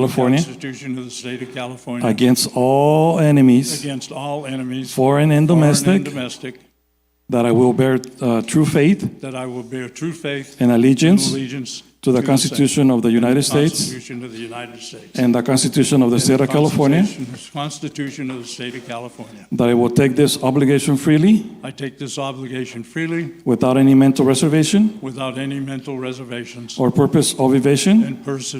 California Constitution of the State of California. against all enemies, Against all enemies. foreign and foreign and domestic, domestic, that I will bear uh, true faith that I will bear true faith. and allegiance Allegiance. to the same, Constitution of the United States Constitution of the United States. and the Constitution of the State of California, Constitution- Constitution of the State of California. that I will take this obligation freely I take this obligation freely, without any mental reservation without any mental reservations. or purpose of evasion, And pers-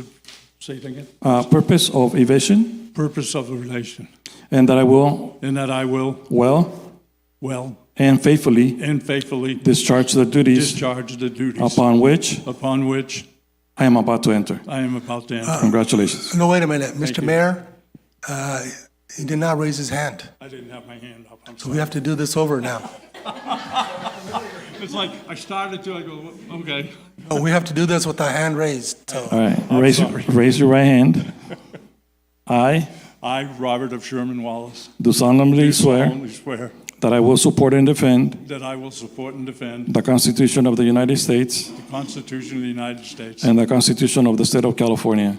say it again, uh, purpose of evasion, purpose of the relation. and that I will And that I will, well well, and faithfully and faithfully discharge the duties discharge the duties upon which upon which I am about to enter. I am about to enter. Congratulations. No, wait a minute, Mr. you. Mayor, uh, he did not raise his hand. I didn't have my hand up, I'm We sorry. have to do this over now. It's like, I started to, I go, okay. No, We have to do this with the hand raised, so. All right, raise, sorry. raise your right hand. I I, Robert of Sherman Wallace, do solemnly swear solemnly swear that I will support and defend that I will support and defend the Constitution of the United States the Constitution of the United States and the Constitution of the State of California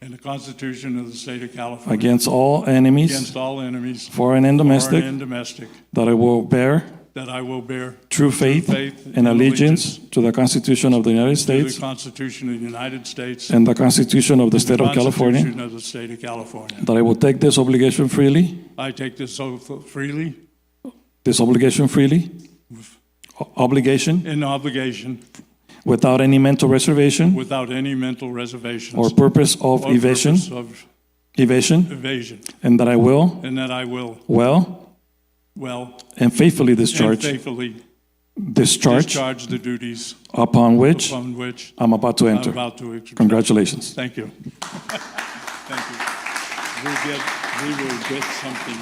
and the Constitution of the State of California against all enemies, against all enemies, foreign and foreign domestic, and domestic, that I will bear that I will bear true faith faith and and allegiance to the Constitution of the United to the States Constitution of the United States and the Constitution of the and State of California, Constitution of the State of California. that I will take this obligation freely, I take this oath freely this obligation freely, o- obligation, in obligation without any mental reservation without any mental reservations or purpose of or evasion, purpose of evasion, evasion, and that I will and that I will well well and faithfully and discharge faithfully discharge discharge the duties upon which upon which I'm about to I'm enter. about to execute. Congratulations. Thank you. Thank you. We'll get, we will get something.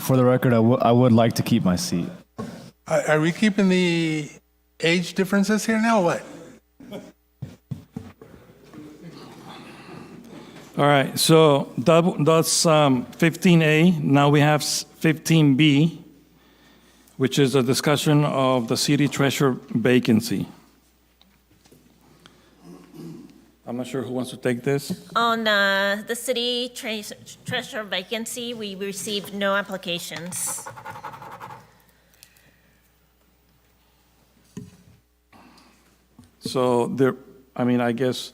For the record, I wou- I would like to keep my seat. Are are we keeping the age differences here now, or what? All right, so that, that's um, 15A. Now we have s- 15B, which is a discussion of the city treasurer vacancy. I'm not sure who wants to take this. On uh, the city tre- treasurer vacancy, we received no applications. So there, I mean, I guess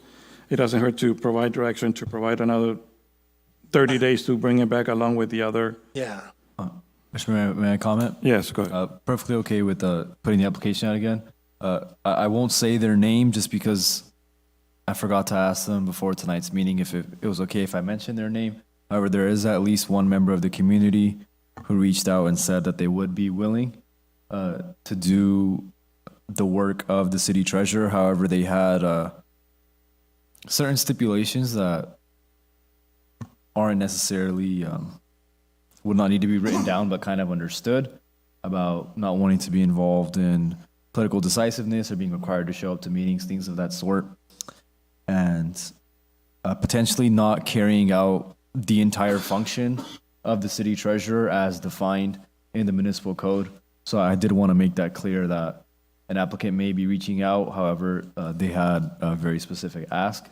it doesn't hurt to provide direction to provide another 30 days to bring it back along with the other. Yeah. Mr. Mayor, may I comment? Yes, go ahead. Uh, perfectly okay with uh, putting the application out again. Uh, I, I won't say their name just because I forgot to ask them before tonight's meeting if it, it was okay if I mentioned their name. However, there is at least one member of the community who reached out and said that they would be willing uh, to do the work of the city treasurer. However, they had uh, certain stipulations that aren't necessarily um, would not need to be written down, but kind of understood about not wanting to be involved in political decisiveness or being required to show up to meetings, things of that sort, and uh, potentially not carrying out the entire function of the city treasurer as defined in the municipal code. So I did want to make that clear that an applicant may be reaching out, however, uh, they had a very specific ask,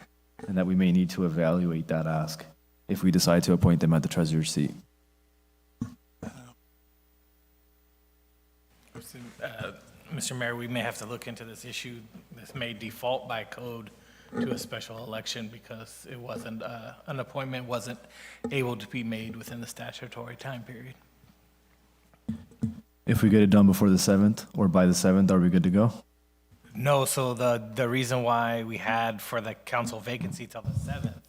and that we may need to evaluate that ask if we decide to appoint them at the treasurer's seat. Mr. Mayor, we may have to look into this issue. This may default by code to a special election because it wasn't, uh, an appointment wasn't able to be made within the statutory time period. If we get it done before the seventh or by the seventh, are we good to go? No, so the, the reason why we had for the council vacancy till the seventh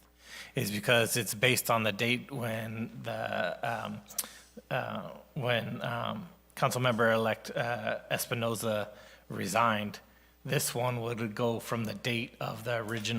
is because it's based on the date when the, um, uh, when, um, council member-elect, uh, Espinoza resigned. This one would go from the date of the original